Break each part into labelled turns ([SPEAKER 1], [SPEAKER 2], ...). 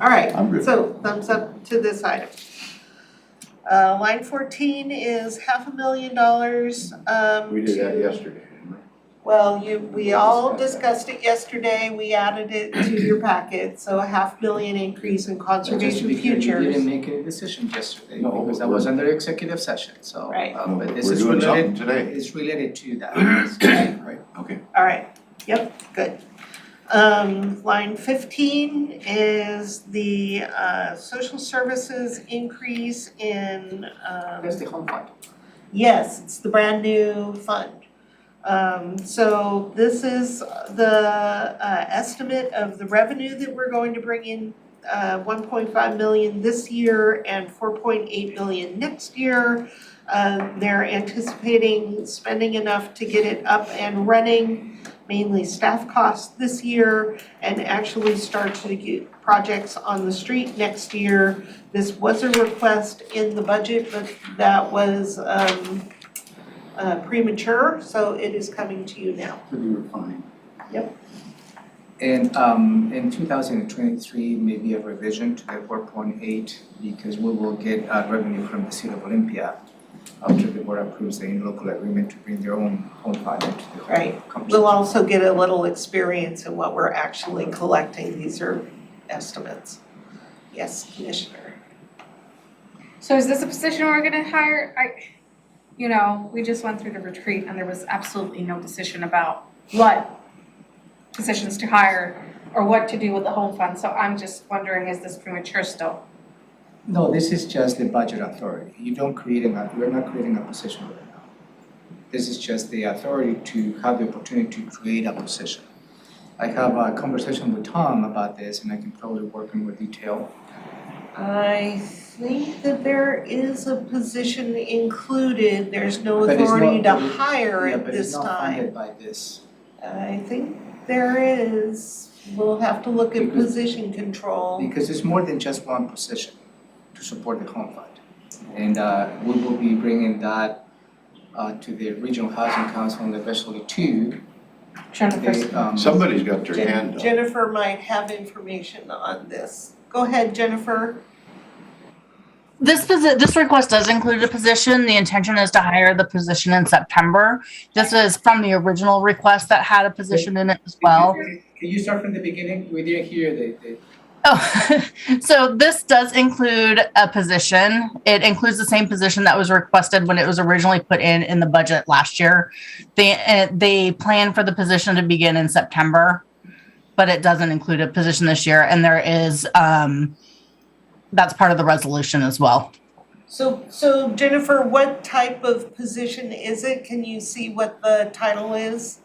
[SPEAKER 1] alright,
[SPEAKER 2] I'm good.
[SPEAKER 1] so thumbs up to this item. Uh, line fourteen is half a million dollars, um,
[SPEAKER 3] We did that
[SPEAKER 1] to-
[SPEAKER 3] yesterday, didn't we?
[SPEAKER 1] Well, you, we all
[SPEAKER 3] Discussed
[SPEAKER 1] discussed it yesterday, we added it to your packet, so a half million increase in
[SPEAKER 4] So just to
[SPEAKER 1] conservation
[SPEAKER 4] be clear,
[SPEAKER 1] futures.
[SPEAKER 4] we didn't make any decision yesterday
[SPEAKER 3] No,
[SPEAKER 4] because that
[SPEAKER 3] we're-
[SPEAKER 4] was under executive session, so.
[SPEAKER 1] Right.
[SPEAKER 4] uh,
[SPEAKER 3] No,
[SPEAKER 4] But this
[SPEAKER 3] we're
[SPEAKER 4] is
[SPEAKER 3] doing something
[SPEAKER 4] related,
[SPEAKER 3] today.
[SPEAKER 4] it's related to that.
[SPEAKER 3] Right, okay.
[SPEAKER 1] Alright, yep, good. Um, line fifteen is the uh social services increase in um.
[SPEAKER 4] That's the home fund.
[SPEAKER 1] Yes, it's the brand new fund. Um, so this is the uh estimate of the revenue that we're going to bring in uh one point five million this year and four point eight million next year. Uh, they're anticipating spending enough to get it up and running, mainly staff costs this year and actually start to get projects on the street next year. This was a request in the budget, but that was um uh premature, so it is coming to you now.
[SPEAKER 4] To be refined.
[SPEAKER 1] Yep.
[SPEAKER 4] And um in two thousand and twenty-three, maybe a revision to the four point eight because we will get uh revenue from the city of Olympia after the board approves the in-local agreement to bring their own home fund into the whole
[SPEAKER 1] Right.
[SPEAKER 4] company.
[SPEAKER 1] We'll also get a little experience in what we're actually collecting, these are estimates. Yes, Commissioner.
[SPEAKER 5] So is this a position we're gonna hire? I, you know, we just went through the retreat and there was absolutely no decision about what positions to hire or what to do with the home fund, so I'm just wondering, is this premature still?
[SPEAKER 4] No, this is just the budget authority. You don't create an, we're not creating a position right now. This is just the authority to have the opportunity to create a position. I have a conversation with Tom about this and I can probably work in more detail.
[SPEAKER 1] I think that there is a position included, there's no
[SPEAKER 4] But it's not-
[SPEAKER 1] authority to
[SPEAKER 4] but it-
[SPEAKER 1] hire
[SPEAKER 4] Yeah,
[SPEAKER 1] at
[SPEAKER 4] but it's
[SPEAKER 1] this
[SPEAKER 4] not
[SPEAKER 1] time.
[SPEAKER 4] funded by this.
[SPEAKER 1] I think there is, we'll have to look at
[SPEAKER 4] Because-
[SPEAKER 1] position control.
[SPEAKER 4] Because it's more than just one position to support the home fund. And uh, we will be bringing that uh, to the regional housing council and eventually to
[SPEAKER 5] Jennifer,
[SPEAKER 4] the um.
[SPEAKER 3] Somebody's got their
[SPEAKER 1] Jen-
[SPEAKER 3] hand up.
[SPEAKER 1] Jennifer might have information on this. Go ahead, Jennifer.
[SPEAKER 6] This posi- this request does include a position. The intention is to hire the position in September. This is from the original request that had a position in it as well.
[SPEAKER 4] Can you start from the beginning? We didn't hear the the
[SPEAKER 6] Oh, so this does include a position. It includes the same position that was requested when it was originally put in in the budget last year. They uh, they plan for the position to begin in September, but it doesn't include a position this year. And there is um, that's part of the resolution as well.
[SPEAKER 1] So, so Jennifer, what type of position is it? Can you see what the title is?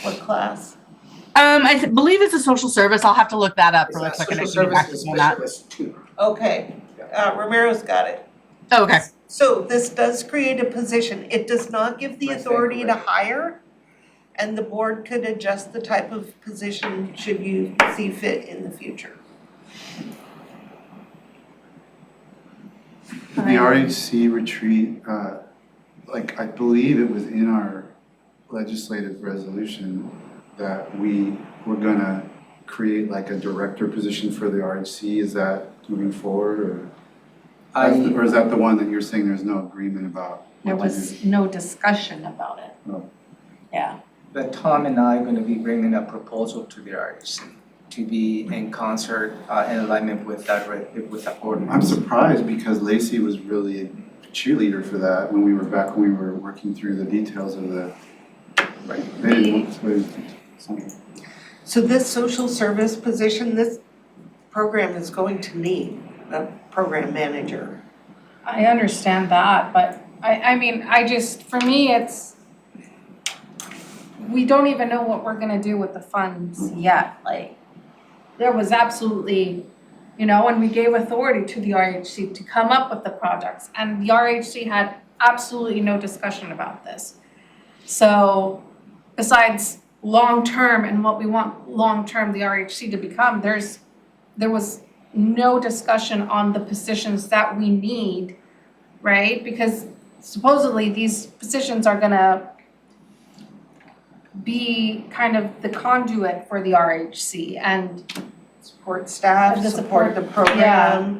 [SPEAKER 1] What class?
[SPEAKER 6] Um, I th- believe it's a social service. I'll have to look that up really quick. and I
[SPEAKER 4] social
[SPEAKER 6] can get back to
[SPEAKER 4] services
[SPEAKER 6] you on that.
[SPEAKER 4] specialist too.
[SPEAKER 1] Okay, uh, Romero's got it.
[SPEAKER 6] Oh, Okay.
[SPEAKER 1] So this does create a position. It does not give the
[SPEAKER 4] Right,
[SPEAKER 1] authority to
[SPEAKER 4] correct.
[SPEAKER 1] hire. And the board could adjust the type of position should you see fit in the future.
[SPEAKER 7] The RHC retreat, uh, like, I believe it was in our legislative resolution that we were gonna create like a director position for the RHC, is that moving forward, or? that's the-
[SPEAKER 4] I
[SPEAKER 7] Or is that the one that you're saying there's no agreement about? what
[SPEAKER 5] there
[SPEAKER 7] to
[SPEAKER 5] was no discussion about it.
[SPEAKER 7] No.
[SPEAKER 5] Yeah,
[SPEAKER 4] but Tom and I are gonna be bringing a proposal to the RHC to be in concert uh in alignment with that re- with that
[SPEAKER 7] do?
[SPEAKER 4] ordinance.
[SPEAKER 7] I'm surprised because Lacey was really a cheerleader for that when we were back, when we were working through the details of the.
[SPEAKER 4] Right.
[SPEAKER 7] They didn't want to- something.
[SPEAKER 1] So this social service position, this program is going to need a program manager.
[SPEAKER 5] I understand that, but I, I mean, I just, for me, it's, we don't even know what we're gonna do with the funds yet, like, there was absolutely, you know, and we gave authority to the RHC to come up with the projects, and the RHC had absolutely no discussion about this. So, besides long-term and what we want long-term the RHC to become, there's, there was no discussion on the positions that we need, right? Because supposedly these positions are gonna be kind of the conduit for the RHC and
[SPEAKER 1] support staff,
[SPEAKER 5] And the
[SPEAKER 1] support the
[SPEAKER 5] support-
[SPEAKER 1] program.
[SPEAKER 5] yeah.